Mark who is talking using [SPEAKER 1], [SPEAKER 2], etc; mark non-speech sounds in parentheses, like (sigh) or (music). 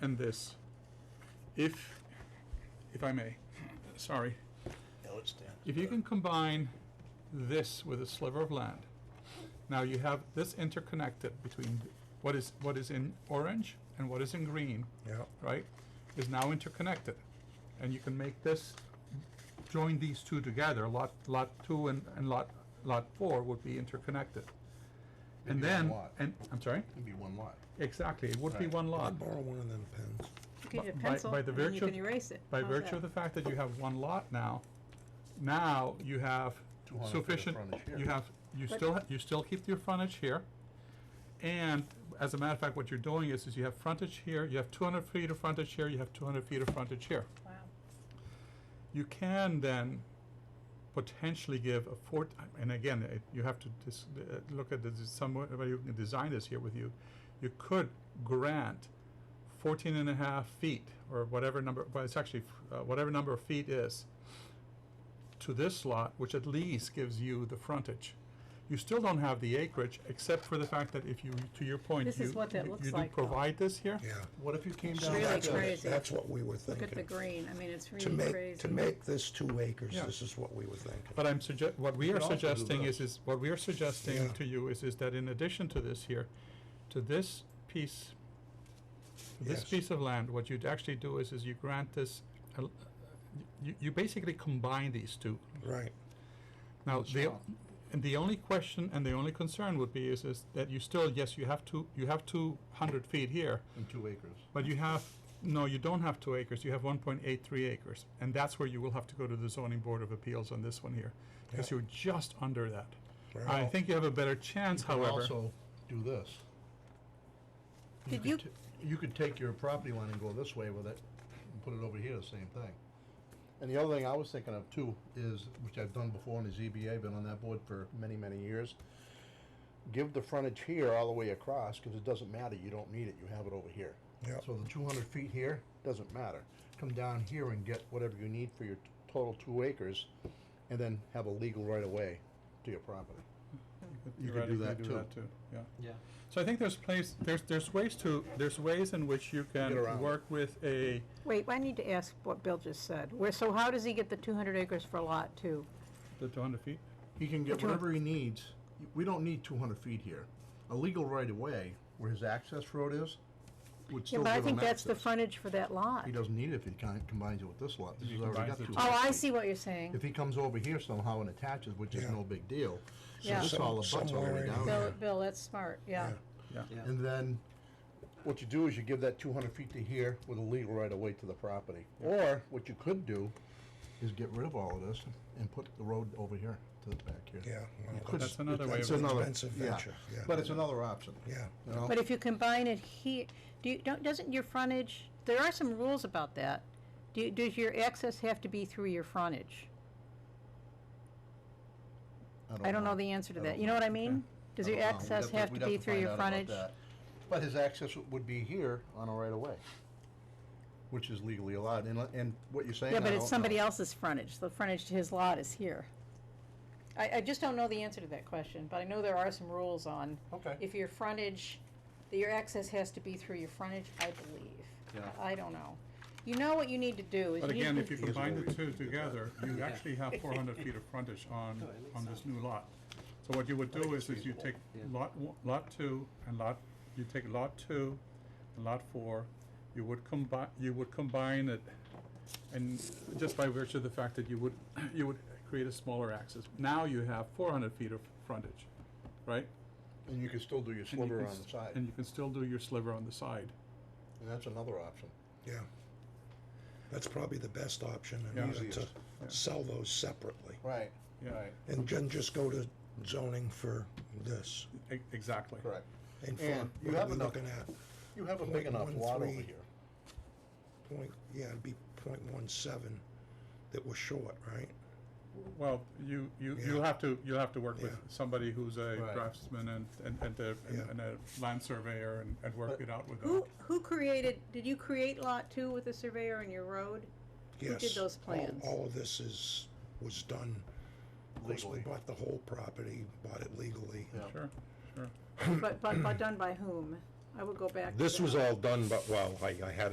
[SPEAKER 1] and this. If, if I may, sorry,
[SPEAKER 2] No, it stands.
[SPEAKER 1] if you can combine this with a sliver of land, now you have this interconnected between what is, what is in orange and what is in green,
[SPEAKER 2] Yeah.
[SPEAKER 1] right, is now interconnected. And you can make this, join these two together, lot, lot two and, and lot, lot four would be interconnected.
[SPEAKER 3] It'd
[SPEAKER 1] And
[SPEAKER 3] be one
[SPEAKER 1] then,
[SPEAKER 3] lot.
[SPEAKER 1] and, I'm sorry,
[SPEAKER 3] It'd be one lot.
[SPEAKER 1] exactly, it would be
[SPEAKER 3] Right.
[SPEAKER 1] one
[SPEAKER 2] I
[SPEAKER 1] lot.
[SPEAKER 2] could borrow one of them pens.
[SPEAKER 4] You can
[SPEAKER 1] By-
[SPEAKER 4] get a
[SPEAKER 1] by-
[SPEAKER 4] pencil,
[SPEAKER 1] by the
[SPEAKER 4] and then you
[SPEAKER 1] virtue of-
[SPEAKER 4] can erase it.
[SPEAKER 1] By
[SPEAKER 4] How's
[SPEAKER 1] virtue
[SPEAKER 4] that?
[SPEAKER 1] of the fact that you have one lot now, now you have
[SPEAKER 3] 200 feet of
[SPEAKER 1] sufficient,
[SPEAKER 3] frontage here.
[SPEAKER 1] you have, you
[SPEAKER 4] But-
[SPEAKER 1] still, ha- you still keep your frontage here. And as a matter of fact, what you're doing is, is you have frontage here, you have two hundred feet of frontage here, you have two hundred feet of frontage here.
[SPEAKER 4] Wow.
[SPEAKER 1] You can then potentially give a four, and again, it- you have to just, uh, look at this, somebody who can design this here with you. You could grant fourteen and a half feet, or whatever number, well, it's actually, uh, whatever number of feet is, to this lot, which at least gives you the frontage. You still don't have the acreage, except for the fact that if you, to your point,
[SPEAKER 4] This is
[SPEAKER 1] you-
[SPEAKER 4] what that
[SPEAKER 1] you-
[SPEAKER 4] looks
[SPEAKER 1] You do
[SPEAKER 4] like, though.
[SPEAKER 1] provide this here?
[SPEAKER 2] Yeah.
[SPEAKER 3] What if you came
[SPEAKER 2] So
[SPEAKER 3] down?
[SPEAKER 4] really
[SPEAKER 2] that's
[SPEAKER 3] to-
[SPEAKER 2] what-
[SPEAKER 4] crazy.
[SPEAKER 2] That's what we were
[SPEAKER 4] Look at the
[SPEAKER 2] thinking.
[SPEAKER 4] green, I mean, it's
[SPEAKER 2] To
[SPEAKER 4] really
[SPEAKER 2] make,
[SPEAKER 4] crazy.
[SPEAKER 2] to make this two acres,
[SPEAKER 1] Yeah.
[SPEAKER 2] this is what we were thinking.
[SPEAKER 1] But I'm sugge- what we
[SPEAKER 3] You
[SPEAKER 1] are
[SPEAKER 3] could also do
[SPEAKER 1] suggesting is,
[SPEAKER 3] this.
[SPEAKER 1] is, what we are suggesting
[SPEAKER 2] Yeah.
[SPEAKER 1] to you is, is that in addition to this here, to this piece, to this
[SPEAKER 2] Yes.
[SPEAKER 1] piece of land, what you'd actually do is, is you grant this, a l- you, you basically combine these two.
[SPEAKER 2] Right.
[SPEAKER 1] Now,
[SPEAKER 3] That's
[SPEAKER 1] the,
[SPEAKER 3] wrong.
[SPEAKER 1] and the only question and the only concern would be is, is that you still, yes, you have two, you have two hundred feet here,
[SPEAKER 3] In two acres.
[SPEAKER 1] but you have, no, you don't have two acres, you have one point eight three acres. And that's where you will have to go to the zoning board of appeals on this one here, because
[SPEAKER 2] Yeah.
[SPEAKER 1] you're just under that. I
[SPEAKER 2] Right.
[SPEAKER 1] think you have a better chance,
[SPEAKER 3] You could
[SPEAKER 1] however.
[SPEAKER 3] Also, do this.
[SPEAKER 4] Did
[SPEAKER 3] could
[SPEAKER 4] you-
[SPEAKER 3] t- You could take your property line and go this way with it, and put it over here, the same thing. And the other thing I was thinking of too is, which I've done before on the ZBA, been on that board for many, many years. Give the frontage here all the way across, cause it doesn't matter, you don't need it, you have it over here.
[SPEAKER 2] Yep.
[SPEAKER 3] So the two hundred feet here, doesn't matter. Come down here and get whatever you need for your t- total two acres, and then have a legal right of way to your property. You could do
[SPEAKER 1] theoretically
[SPEAKER 3] that too.
[SPEAKER 1] yeah.
[SPEAKER 5] Yeah.
[SPEAKER 1] So I think there's place, there's, there's ways to, there's ways in which you can
[SPEAKER 3] around it.
[SPEAKER 1] work with a,
[SPEAKER 4] Wait, I need to ask what Bill just said. Where, so how does he get the two hundred acres for lot two?
[SPEAKER 1] the two hundred feet.
[SPEAKER 3] He can get
[SPEAKER 4] Which one?
[SPEAKER 3] whatever he needs. We don't need two hundred feet here. A legal right of way where his access road is would
[SPEAKER 4] Yeah,
[SPEAKER 3] still
[SPEAKER 4] but I
[SPEAKER 3] give
[SPEAKER 4] think
[SPEAKER 3] him
[SPEAKER 4] that's the
[SPEAKER 3] access.
[SPEAKER 4] frontage for that lot.
[SPEAKER 3] He doesn't need it if he kind- combines it with this lot. This
[SPEAKER 1] If he
[SPEAKER 3] is already
[SPEAKER 1] combines
[SPEAKER 3] got
[SPEAKER 1] the
[SPEAKER 3] two.
[SPEAKER 1] two.
[SPEAKER 4] Oh, I
[SPEAKER 3] acres.
[SPEAKER 4] see what you're saying.
[SPEAKER 3] If he comes over here somehow and attaches, which is
[SPEAKER 2] Yeah.
[SPEAKER 3] no big deal, so
[SPEAKER 4] Yeah.
[SPEAKER 3] this all abuts all the
[SPEAKER 2] Somewhere
[SPEAKER 3] way
[SPEAKER 2] in
[SPEAKER 3] down
[SPEAKER 2] there.
[SPEAKER 3] there.
[SPEAKER 4] Bill, Bill, that's smart, yeah.
[SPEAKER 2] Yeah.
[SPEAKER 5] Yeah.
[SPEAKER 3] And then, what you do is you give that two hundred feet to here with a legal right of way to the property. Or, what you could do is get rid of all of this and put the road over here to the back here.
[SPEAKER 2] Yeah, well,
[SPEAKER 3] You could-
[SPEAKER 1] That's another way
[SPEAKER 3] it's
[SPEAKER 1] of-
[SPEAKER 3] another-
[SPEAKER 2] Expensive
[SPEAKER 3] yeah.
[SPEAKER 2] venture, yeah.
[SPEAKER 3] But it's another option.
[SPEAKER 2] Yeah.
[SPEAKER 3] You know?
[SPEAKER 4] But if you combine it here, do you, don't, doesn't your frontage, there are some rules about that. Do, you- does your access have to be through your frontage? I don't know the answer to
[SPEAKER 3] I
[SPEAKER 4] that.
[SPEAKER 3] don't
[SPEAKER 4] You know what I
[SPEAKER 1] Okay.
[SPEAKER 4] mean? Does your
[SPEAKER 3] don't know. We'd
[SPEAKER 4] access have to
[SPEAKER 3] we'd
[SPEAKER 4] be through
[SPEAKER 3] find
[SPEAKER 4] your
[SPEAKER 3] out about
[SPEAKER 4] frontage?
[SPEAKER 3] that. But his access would be here on a right of way, which is legally allowed, and, and what you're saying, I
[SPEAKER 4] Yeah,
[SPEAKER 3] don't know.
[SPEAKER 4] but it's somebody else's frontage, the frontage to his lot is here. I, I just don't know the answer to that question, but I know there are some rules on
[SPEAKER 3] Okay.
[SPEAKER 4] if your frontage, that your access has to be through your frontage, I believe.
[SPEAKER 5] Yeah.
[SPEAKER 4] I don't know. You know what you need to do is
[SPEAKER 1] But
[SPEAKER 4] you
[SPEAKER 1] again,
[SPEAKER 4] need
[SPEAKER 1] if
[SPEAKER 4] to,
[SPEAKER 1] you
[SPEAKER 3] Here's
[SPEAKER 1] combine
[SPEAKER 3] where
[SPEAKER 1] the
[SPEAKER 3] we
[SPEAKER 1] two
[SPEAKER 3] can get
[SPEAKER 1] together, you actually have four hundred feet of frontage on,
[SPEAKER 5] No, it makes
[SPEAKER 1] on this
[SPEAKER 5] sense.
[SPEAKER 1] new lot. So what you would do is, is you take
[SPEAKER 5] Yeah.
[SPEAKER 1] lot, one- lot two and lot, you take lot two and lot four, you would combine, you would combine it, and just by virtue of the fact that you would, (clears throat) you would create a smaller axis. Now you have four hundred feet of frontage, right?
[SPEAKER 3] And you can still do your
[SPEAKER 1] And you
[SPEAKER 3] sliver
[SPEAKER 1] can
[SPEAKER 3] on
[SPEAKER 1] s-
[SPEAKER 3] the side,
[SPEAKER 1] And you can still do your sliver on the side.
[SPEAKER 3] and that's another option.
[SPEAKER 2] Yeah. That's probably the best option in
[SPEAKER 1] Yeah.
[SPEAKER 2] order to
[SPEAKER 3] Easiest.
[SPEAKER 1] Yeah.
[SPEAKER 2] sell those separately.
[SPEAKER 3] Right,
[SPEAKER 1] Yeah. right.
[SPEAKER 2] And then just go to zoning for this.
[SPEAKER 1] E- Exactly.
[SPEAKER 3] Correct.
[SPEAKER 2] And for,
[SPEAKER 3] And you
[SPEAKER 2] what are
[SPEAKER 3] have
[SPEAKER 2] we
[SPEAKER 3] enough-
[SPEAKER 2] looking at?
[SPEAKER 3] You have a big enough lot over
[SPEAKER 2] 0.13.
[SPEAKER 3] here.
[SPEAKER 2] Point, yeah, it'd be point one seven that we're short, right?
[SPEAKER 1] Well, you, you,
[SPEAKER 2] Yeah.
[SPEAKER 1] you'll have to, you'll have to work with
[SPEAKER 2] Yeah.
[SPEAKER 1] somebody who's a
[SPEAKER 3] Right.
[SPEAKER 1] draftsman and, and, and a, and-
[SPEAKER 2] Yeah.
[SPEAKER 1] and a land surveyor and, and work
[SPEAKER 3] But-
[SPEAKER 1] it out with them.
[SPEAKER 4] who, who created, did you create lot two with the surveyor in your road?
[SPEAKER 2] Yes.
[SPEAKER 4] did those
[SPEAKER 2] all-
[SPEAKER 4] plans?
[SPEAKER 2] All of this is, was done. Of course, we
[SPEAKER 3] Legally.
[SPEAKER 2] bought the whole property, bought it legally.
[SPEAKER 3] Yeah.
[SPEAKER 1] Sure, sure.
[SPEAKER 4] But, but, but done by whom? I would go back to
[SPEAKER 6] This
[SPEAKER 4] that.
[SPEAKER 6] was all done, but, well, I, I had